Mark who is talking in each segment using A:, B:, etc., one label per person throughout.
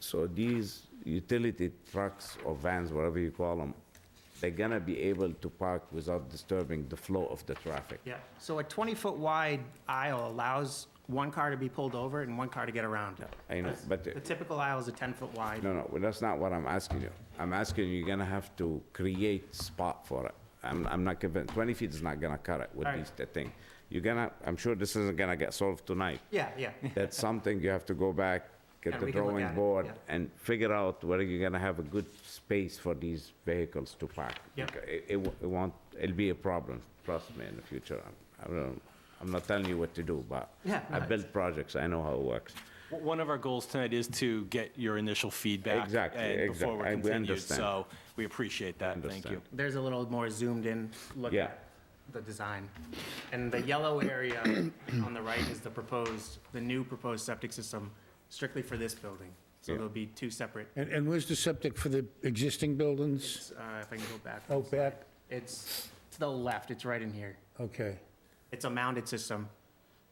A: So these utility trucks or vans, whatever you call them, they're gonna be able to park without disturbing the flow of the traffic.
B: Yeah, so a 20-foot wide aisle allows one car to be pulled over and one car to get around it.
A: I know, but-
B: The typical aisle is a 10-foot wide.
A: No, no, well, that's not what I'm asking you. I'm asking you, you're gonna have to create spot for it. I'm, I'm not convinced, 20 feet is not gonna cut it with
B: Alright.
A: these, the thing. You're gonna, I'm sure this isn't gonna get solved tonight.
B: Yeah, yeah.
A: That's something you have to go back,
B: Yeah,
A: get the
B: we can look at
A: drawing
B: it,
A: board,
B: yeah.
A: and figure out whether you're gonna have a good space for these vehicles to park.
B: Yeah.
A: Because It, it wo- it won't, it'll be a problem, trust me, in the future. I'm- I don't, I'm not telling you what to do, but
B: Yeah,
A: I
B: no,
A: built projects, I know how it works.
C: W- One of our goals tonight is to get your initial feedback.
A: Exactly,
C: and
A: exactly.
C: Before we're
A: I- we
C: continued,
A: understand.
C: so we appreciate that. Thank you.
A: Understand.
B: There's a little more zoomed-in look
A: Yeah.
B: at the design. And the yellow area on the right is the proposed, the new proposed septic system strictly for this building. So
A: Yeah.
B: there'll be two separate,
D: And, and where's the septic for the existing buildings?
B: uh, if I can go back.
D: Out back?
B: It's to the left, it's right in here.
D: Okay.
B: It's a mounted system,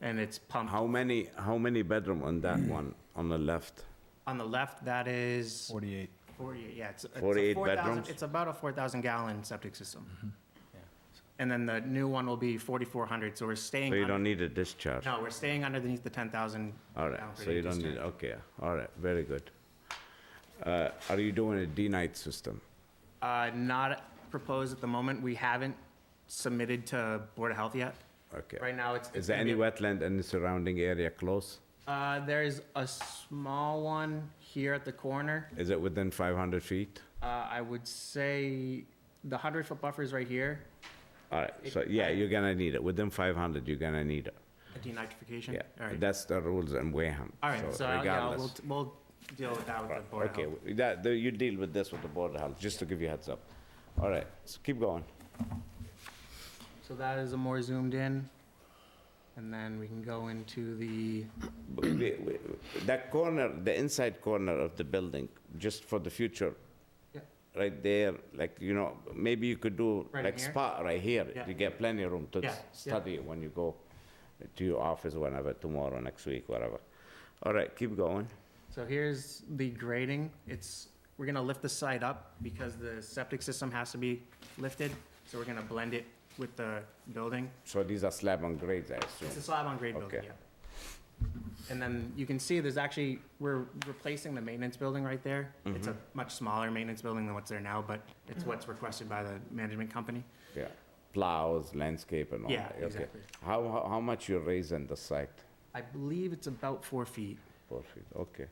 B: and it's pumped.
A: How many, how many bedroom on that one, on the left?
B: On the left, that is
C: 48.
B: 48, yeah. it's- it's a
A: 48
B: 4,000
A: bedrooms?
B: It's about a 4,000 gallon septic system. And then the new one will be 4,400, so we're staying.
A: So you
B: under-
A: don't need a discharge?
B: No, we're staying underneath the 10,000.
A: All right,
B: gallon per
A: so
B: day
A: you don't need,
B: discharge.
A: okay, all right, very good. Uh, Are you doing a D-night system?
B: Uh, Not proposed at the moment. We haven't submitted to Board of Health yet.
A: Okay.
B: Right now, it's.
A: Is there any wetland in the surrounding area close?
B: Uh, There's a small one here at the corner.
A: Is it within 500 feet?
B: Uh, I would say the 100-foot buffer is right here,
A: All right, so yeah, you're gonna need it, within 500, you're gonna need it,
B: a denitrification. All
A: yeah.
B: right.
A: That's the rules in Wareham,
B: All right, so, I'll- yeah, we'll,
A: regardless.
B: we'll deal with that with the Board of
A: Okay,
B: Health.
A: w- that, the- you deal with this with the Board of Health, just to give you a heads up. All right, so keep going.
B: So that is a more zoomed in. And then we can go into the,
A: We- we- That corner, the inside corner of the building, just for the future,
B: Yeah.
A: right there, like, you know, maybe you could do
B: Right in
A: like
B: here?
A: spot right here.
B: Yeah.
A: You get plenty of room to
B: Yeah,
A: s-
B: yeah.
A: study when you go to your office whenever, tomorrow, next week, whatever. All right, keep going.
B: so here's the grading. It's, we're gonna lift the site up because the septic system has to be lifted. So we're gonna blend it with the building.
A: So these are slab and grades, I
B: It's a
A: assume.
B: slab on grade building,
A: Okay.
B: yeah. And then you can see there's actually, we're replacing the maintenance building right there. It's
A: Mm-hmm.
B: a much smaller maintenance building than what's there now, but it's what's requested by the management company.
A: Yeah, plows, landscape and all
B: Yeah,
A: that. okay.
B: exactly.
A: How, how- how much you raising the site?
B: I believe it's about four feet
A: Four feet, okay.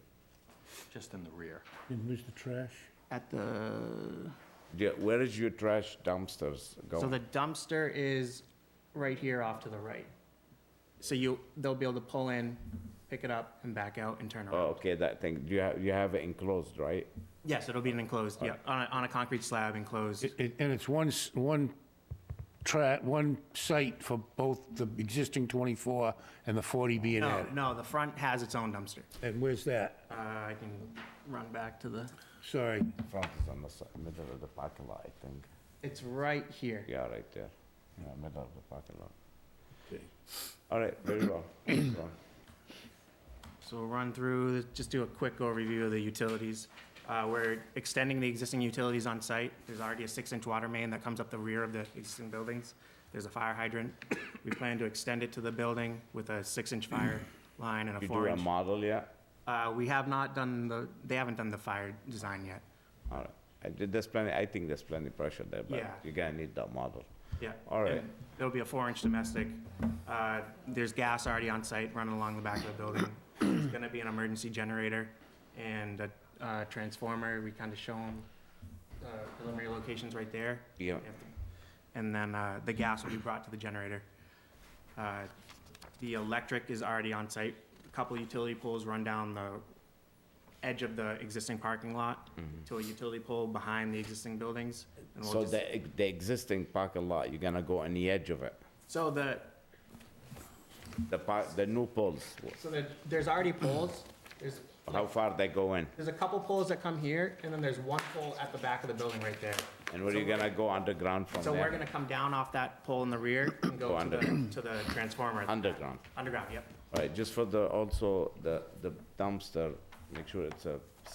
C: Just in the rear.
D: And where's the trash?
B: at the,
A: Yeah, where is your trash dumpsters
B: So
A: going?
B: the dumpster is right here off to the right. So you, they'll be able to pull in, pick it up and back out and turn
A: Oh,
B: around.
A: okay, that thing, you have, you have it enclosed, right?
B: Yes, it'll be an enclosed, yeah, on a, on a concrete slab enclosed.
D: And it's one, s- one tra, one site for both the existing 24 and the 40 being
B: No,
D: added?
B: no, the front has its own dumpster.
D: And where's that?
B: Uh, I can run back to the,
D: Sorry.
A: Front is on the si- middle of the parking lot, I think.
B: it's right here.
A: Yeah, right there. Yeah, middle of the parking lot. All right, very well. Keep going.
B: So we'll run through, just do a quick overview of the utilities. Uh, We're extending the existing utilities on site. There's already a six-inch water main that comes up the rear of the existing buildings. There's a fire hydrant. We plan to extend it to the building with a six-inch fire line and a
A: You do a
B: four-inch.
A: model yet?
B: Uh, We have not done the, they haven't done the fire design yet.
A: All right. I did- There's plenty, I think there's plenty pressure there, but
B: Yeah.
A: you're gonna need that model.
B: Yeah.
A: All right.
B: And It'll be a four-inch domestic. Uh, There's gas already on site running along the back of the building. There's gonna be an emergency generator and a uh, transformer. We kind of show them preliminary locations right there.
A: Yeah.
B: And then uh, the gas will be brought to the generator. Uh, The electric is already on site. A couple utility poles run down the edge of the existing parking lot to a utility pole behind the existing buildings. and we'll
A: Mm-hmm. So
B: just-
A: the, the existing parking lot, you're gonna go on the edge of it.
B: So the,
A: The par, the new poles,
B: So there, there's already poles, there's,
A: how far they go in?
B: there's a couple poles that come here, and then there's one pole at the back of the building right there.
A: And where you gonna go underground from
B: So
A: there?
B: we're gonna come down off that pole in the rear and go
A: Go
B: to the, to the transformer.
A: Underground.
B: Underground, yep.
A: All right, just for the, also, the, the dumpster, make sure it's a